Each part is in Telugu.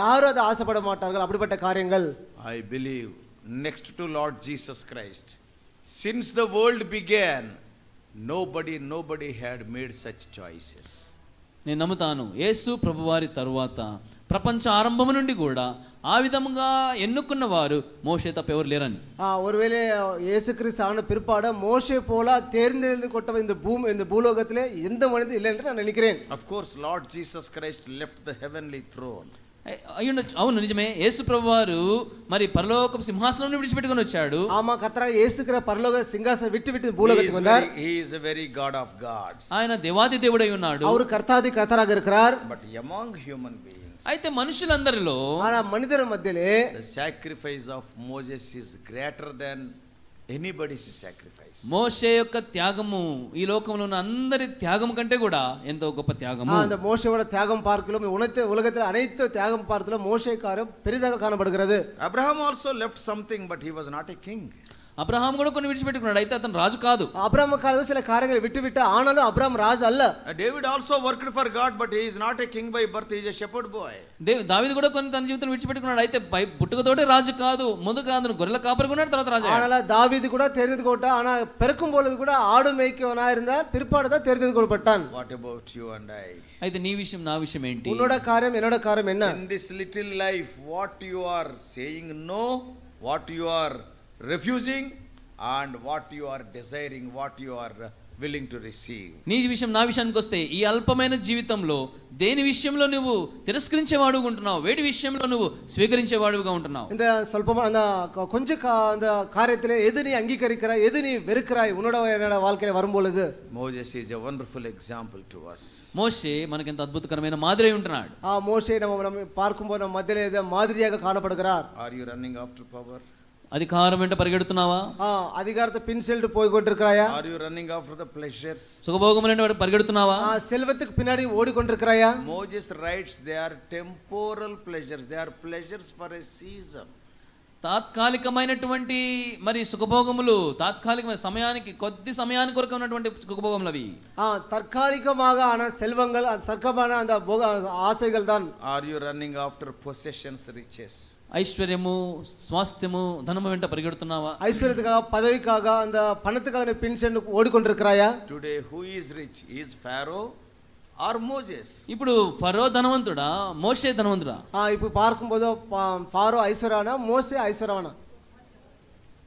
யாரும் அதை ஆசைப்பட மாட்டார்கள் அப்படிப்பட்ட காரியங்கள் I believe next to Lord Jesus Christ. Since the world began, nobody, nobody had made such choices. నేను నమ్ముతాను యేసు ప్రభువారి తరువాత ప్రపంచ ఆరంభము నుండి కూడా ఆ విధముగా ఎన్నుకున్న వారు మోషే తప్ప ఎవరు లేరని ஆ, ஒருவேளை இயேசு கிறிஸ்து ஆன பிற்பாட மோசே போல தேர்ந்தெழுந்து கொட்டவன் இந்த பூமி இந்த பூலோகத்திலே எந்த மனிதன் இல்லை என்று நான் நினைக்கிறேன் Of course, Lord Jesus Christ left the heavenly throne. అయ్- అయ్యుండొచ్చు అవును నిజమే యేసు ప్రభువారు మరి పరలోకం సింహాసనం విడిచిపెట్టుకొని వచ్చాడు ஆமா கத்தராக இயேசுக்கிற பரலோக சிங்காசனம் விட்டு விட்டு இந்த He is, பூலோகத்துக்கு வந்தார் very, he is a very God of gods. ఆయన దేవాది దేవుడై ఉన్నాడు அவர் கர்த்தாதி கர்த்தராக இருக்கிறார் But among human beings, అయితే మనుషులందరిలో ஆனா மனிதர் மத்தியிலே the sacrifice of Moses is greater than anybody's sacrifice. మోషే యొక్క త్యాగము ఈ లోకంలో ఉన్న అందరి త్యాగం కంటే కూడా ఎంతో గొప్ప త్యాగము ஆ, அந்த மோசையோட தியாகம் பார்க்கலாம் உலகத்தில் உலகத்தில் அனைத்து தியாகம் பார்த்துல மோசே காரம் பெரிதாக காணப்படுகிறது Abraham also left something, but he was not a king. Abraham కూడా కొన్ని విడిచిపెట్టుకున్నాడు అయితే అతను రాజు కాదు அப்ராம் காலத்தில் சில காரியங்களை விட்டுவிட்டு ஆனாலும் அப்ராம் ராஜ் அல்ல Uh, David also worked for God, but he is not a king by birth, he is a shepherd boy. దేవి దావిది కూడా కొన్ని తన జీవితం విడిచిపెట్టుకున్నాడు అయితే బై పుట్టుకతోటే రాజు కాదు ముందుగా అతను గొర్రెల కాపరుకున్నాడు తర్వాత రాజు అయ్యాడు. ஆனால தாவீது கூட தெரிந்து கொண்டா ஆனா பிறக்கும் பொழுது கூட ஆடு மேய்க்கவனா இருந்தார் பிற்பாடு தான் தெரிந்து கொள்ளப்பட்டான் What about you and I? అయితే నీ విషయం నా విషయం ఏంటి உன்னோட காரியம் என்னோட காரியம் என்ன In this little life, what you are saying no, what you are refusing, and what you are desiring, what you are uh, willing to receive. నీ విషయం నా విషయానికి వస్తే ఈ అల్పమైన జీవితంలో దేని విషయంలో నువ్వు తిరస్కరించేవాడుగా ఉంటున్నావు వేటి విషయంలో నువ్వు స్వీకరించేవాడుగా ఉంటున్నావు இந்த சொல்பமா அந்த கொ- கொஞ்ச கா- அந்த காரியத்திலே எது நீ அங்கீகரிக்கிறாய் எது நீ வெறுக்கிறாய் உன்னோட என்னோட வாழ்க்கையில வரும் பொழுது Moses is a wonderful example to us. మోషే మనకెంత అద్భుతకరమైన మాదిరి అయి ఉంటున్నాడు ஆ மோசே நம்ம நம்ம பார்க்கும்போது நம்ம மத்தியிலே இதை மாதிரியாக காணப்படுகிறார் Are you running after power? అధికారం వెంట పరిగెడుతున్నావా ஆ அதிகாரத்தை பின் செல்லிட்டு போய் கொண்டிருக்கிறாயா Are you running after the pleasures? సుఖభోగముల వెంట పరిగెడుతున్నావా ஆ, செல்வத்துக்கு பின்னாடி ஓடிக்கொண்டிருக்கிறாயா Moses writes they are temporal pleasures, they are pleasures for a season. తాత్కాలికమైనటువంటి మరి సుఖభోగములు తాత్కాలికమైన సమయానికి కొద్ది సమయానికి కొరకు ఉన్నటువంటి సుఖభోగములు అవి ஆ தற்காலிகமாக ஆன செல்வங்கள் அந்த சர்க்கமான அந்த போக- ஆசைகள் தான் Are you running after possessions, riches? ఐశ్వర్యము స్వాస్థ్యము ధనము వెంట పరిగెడుతున్నావా ஐஸ்வர்யத்துக்காக பதவிக்காக அந்த பணத்துக்காக நீ பின் சென்று ஓடிக்கொண்டிருக்கிறாயா Today, who is rich? Is Pharaoh or Moses? ఇప్పుడు ఫరో ధనవంతుడా మోషే ధనవంతుడా ஆ இப்போ பார்க்கும்போது பா- ஃபாரோ ஐஸ்வர்யானா மோசே ஐஸ்வர்யானா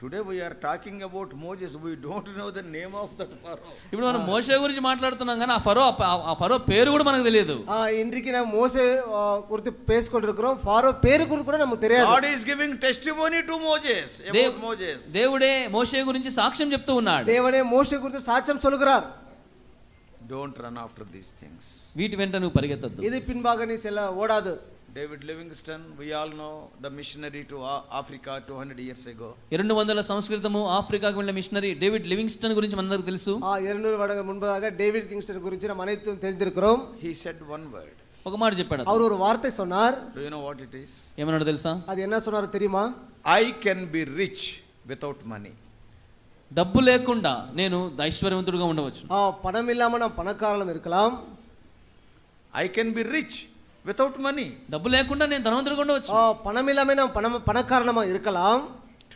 Today, we are talking about Moses. We don't know the name of that Pharaoh. ఇప్పుడు మనం మోషే గురించి మాట్లాడుతున్నాం కానీ ఆ ఫరో ఆ- ఆ ఫరో పేరు కూడా మనకు తెలియదు ஆ இன்றைக்கு நான் மோசே ஆ, குறித்து பேசிக்கொண்டிருக்கிறோம் ஃபாரோ பேரு குறித்து கூட நமக்கு தெரியாது God is giving testimony to Moses about Dev- Moses. దేవుడే మోషే గురించి సాక్ష్యం చెప్తూ ఉన్నాడు தேவனே மோசே குறித்து சாட்சியம் சொல்கிறார் Don't run after these things. వీటి వెంట నువ్వు పరిగెత్తద్దు இது பின்பாக நீ செல்ல ஓடாது David Livingstone, we all know the missionary to A- Africa 200 years ago. రెండు వందల సంస్కృతము ఆఫ్రికాకు వెళ్ళిన మిషనరీ డేవిడ్ లివింగ్స్టన్ గురించి మనందరికి తెలుసు ஆ இருநூறு வருடங்கள் முன்பதாக டேவிட் கிங்ஸ்டன் குறித்து நம்ம அனைத்தும் தெரிந்திருக்கிறோம் He said one word. ఒక మాట చెప్పాడు అతను. அவர் ஒரு వార్த்தை சொன்னார் Do you know what it is? ఏమన్నాడు తెలుసా அது என்ன சொன்னார் தெரியுமா I can be rich without money. డబ్బు లేకుండా నేను ఐశ్వర్యవంతుడుగా ఉండవచ్చు ஆ பணம் இல்லாம நான் பணக்காரனும் இருக்கலாம் I can be rich without money. డబ్బు లేకుండా నేను ధనవంతుడుగా ఉండవచ్చు ஆ பணம் இல்லாம நான் பணம் பணக்காரனமா இருக்கலாம்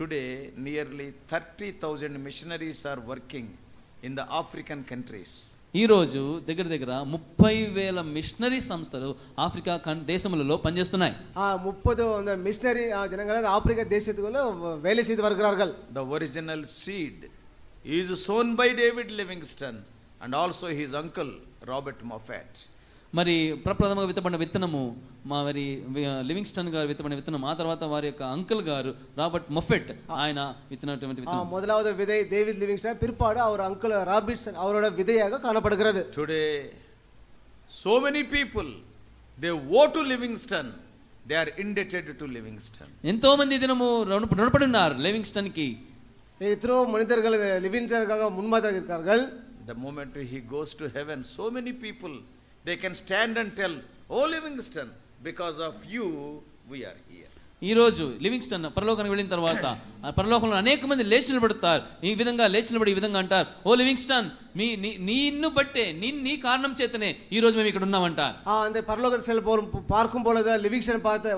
Today, nearly 30,000 missionaries are working in the African countries. ఈ రోజు దగ్గర దగ్గర ముప్పై వేల మిషనరీ సంస్థలు ఆఫ్రికా కన్- దేశములలో పనిచేస్తున్నాయి ஆ முப்பது அந்த மிஷினரி ஜனங்கள் அந்த ஆப்பிரிக்க தேசத்துக்குள்ள வ- வேலை செய்து வருகிறார்கள் The original seed is sown by David Livingstone and also his uncle Robert Moffat. మరి ప్రప్రథమంగా విత్తబడిన విత్తనము మా మరి వి- లివింగ్స్టన్ గారు విత్తబడిన విత్తనం ఆ తర్వాత వారి యొక్క అంకుల్ గారు రాబర్ట్ మొఫెట్ ఆయన విత్తనటువంటి ஆ, విత్తనం முதலாவது விதை டேவிட் லிவிங்ஸ்டன் பிற்பாடு அவர் அங்கிள் ராபின்சன் அவரோட விதையாக காணப்படுகிறது Today, so many people they owe to Livingstone, they are indebted to Livingstone. ఎంతో మంది ఈ దినము రుణ- రుణపడి ఉన్నారు లివింగ్స్టన్ కి எத்தனோ மனிதர்கள் லிவிங்ஸ்டனுக்காக முன்மாதிரியாக இருக்கிறார்கள் The moment he goes to heaven, so many people they can stand and tell, Oh Livingstone, because of you we are here. ఈ రోజు లివింగ్స్టన్ పరలోకానికి వెళ్ళిన తర్వాత ఆ పరలోకంలో అనేక మంది లేచి నిలబడతారు ఈ విధంగా లేచి నిలబడి ఈ విధంగా అంటారు ఓ లివింగ్స్టన్ మీ నీ నిన్ను బట్టే నీ నీ కారణం చేతనే ఈ రోజు మేము ఇక్కడ ఉన్నామంటారు ஆ, அந்த பரலோகத்தில் செல்ல போகும் பார்க்கும் பொழுது லிவிங்ஸ்டன் பார்த்த